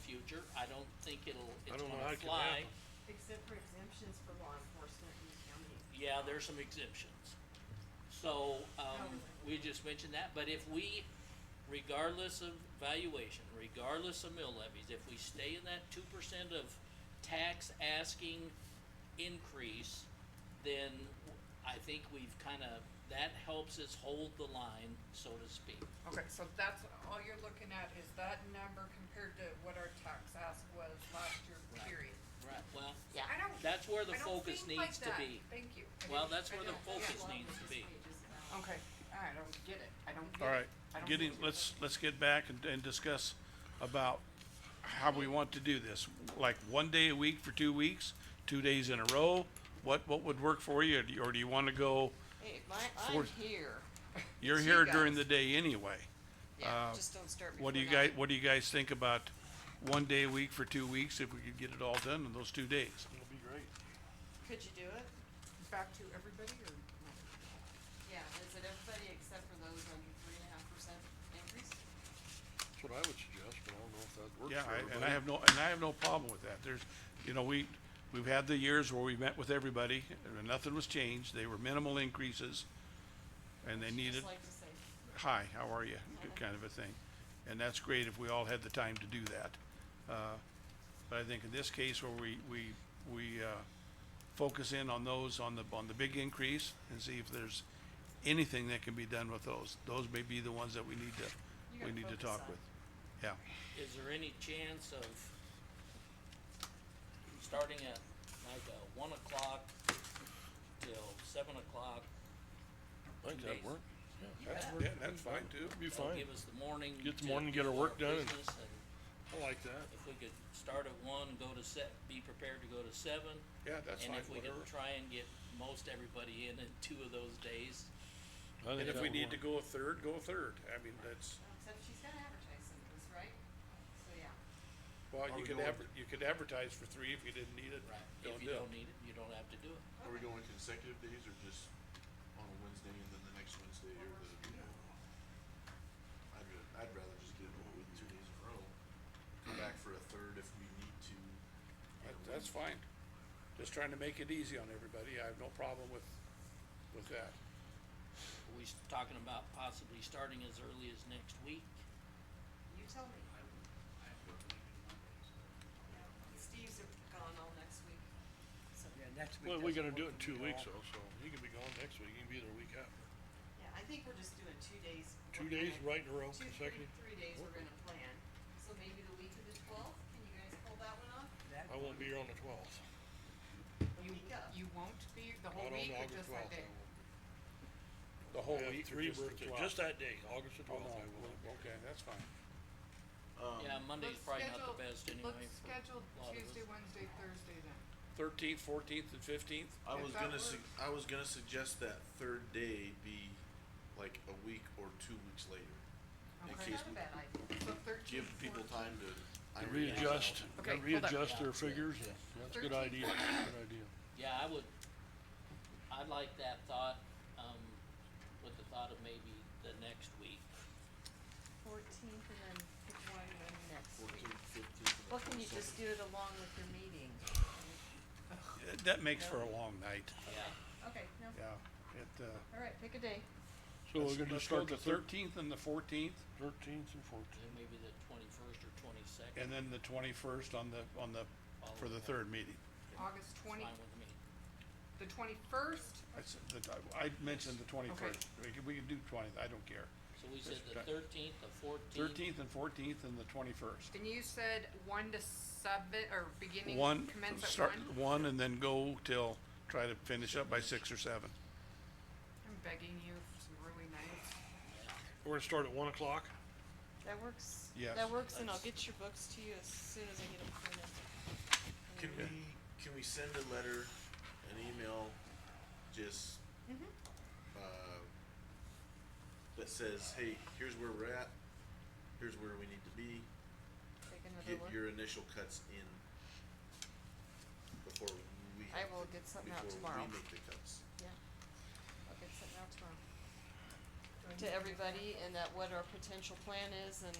future, I don't think it'll, I it's don't know how gonna it could fly. happen. Except for exemptions for law enforcement and county. Yeah, there's some exemptions. So, um, Oh. we just mentioned that, but if we, regardless of valuation, regardless of mill levies, if we stay in that two percent of tax asking increase, then I think we've kinda, that helps us hold the line, so to speak. Okay, so that's, all you're looking at is that number compared to what our tax ask was last year, Right. period. Right. Well, Yeah. I don't, that's where the I don't focus think like needs to that. be. Thank you. I Well, didn't- that's I where the don't. focus Yeah. needs to be. Okay, I don't get it, I don't get it. All right, I don't getting, get it. let's, let's get back and, and discuss about how we want to do this. Like one day a week for two weeks, two days in a row, what, what would work for you? Or do you- Or do you wanna go, Hey, my, I'm uh, Fourth. here. you're See here you during the guys. day anyway? Yeah, Uh, just don't start before What do you guys, nine. what do you guys think about one day a week for two weeks if we could get it all done in those two days? It'll be great. Could you do it? Back to everybody or? no? Yeah, is it everybody except for those under three and a half percent increase? That's what I would suggest, but I don't know if that works for Yeah, everybody. I, and I have no, and I have no problem with that. There's, you know, we, we've had the years where we met with everybody and nothing was changed. They were minimal increases. And they needed, Just like to say, hi, how are you, kind of a thing. And that's great if we all had the time to do that. Uh, But I think in this case where we, we, we, uh, focus in on those, on the, on the big increase and see if there's anything that can be done with those. Those may be the ones that we need You to, we gotta need to focus talk on. with. Yeah. Is there any chance of starting at like a one o'clock till seven o'clock? I think that'd days? work. That's- Yeah, that's fine too. Be That'll fine. give us the morning. Get the to morning, do get our work done and- business, and I like that. if we could start at one, go to se- be prepared to go to seven. Yeah, that's And fine, if we whatever. could try and get most everybody in in two of those days, I think And if that we would need to go work. a third, go a third. I mean, that's, except she's gotta advertise some of this, right? So, yeah. well, Are you we could going- adver- you could advertise for three if you didn't need it. right? Don't If you do it. don't need it, you don't have to do it. Are we going consecutive days or just on a Wednesday and then the next Wednesday or the, you know? I'd, ra- I'd rather just get it over with two days in a row, come back for a third if we need to. you That- know, That's when- fine. Just trying to make it easy on everybody. I have no problem with, with that. Are we s- talking about possibly starting as early as next week? You tell me. Yeah, Steve's gone all next week, so. Well, we gotta do it in two weeks though, so you can be gone next week, you can be there a week after. Yeah, I think we're just doing two days. Two We're days gonna- right in a row Two, three, consecutive. three days we're gonna plan, so maybe the week of the twelfth, can you guys pull that one off? I won't be here on the twelfth, The You, week of. you won't be the not whole on week or August just that twelfth. day? The whole week or three just the birthdays, 12? just that day, August the Oh, twelfth, no, I will. well, okay, that's fine. Yeah, Um, Monday's Let's probably not schedule- the best anyway. Let's for schedule a lot of us. Tuesday, Wednesday, Thursday then. Thirteenth, fourteenth and fifteenth? I if was that gonna su- works. I was gonna suggest that third day be like a week or two weeks later. In Okay. case Not a we bad idea. So thirteen, give people fourteen. time to. To iron it out. Readjust, to Okay, hold on. readjust their figures, that's a good idea, Thirteenth. good idea. Yeah, I would, I like that thought, um, with the thought of maybe the next week. Fourteenth and then pick one and then next week. 14th, 15th, and Well, can you 22nd. just do it along with your meeting? That makes for a long night, Yeah. Okay, no, yeah. It, uh, all right, pick a day. So we're let's- gonna let's just go start the the thirteenth and the fourteenth thirteenth and fourteenth. Then maybe the twenty-first or twenty-second, and then the twenty-first on the, on the, for the third meeting. August twenty, fine with me. the twenty-first, I s- the- I, I mentioned the twenty-first. We can, we can do twentieth, I don't care. So we said the Just- thirteenth, the fourteenth. Thirteenth and fourteenth and the twenty-first. and you said one to seven, or beginning, One, commence at one? start at one and then go till, try to finish up by six or seven. I'm begging you for some really nice. We're gonna start at one o'clock, That works. Yes. That works, and I'll That's- get your books to you as soon as I get them printed. Can we, can we send a letter, an email, just, Mm-hmm. uh, that says, hey, here's where we're at, here's where we need to be, Take another get look. your initial cuts in before we. I have will to- get something out tomorrow. Before we make the cuts. Yeah. I'll get something out tomorrow. To everybody and that what our potential plan is and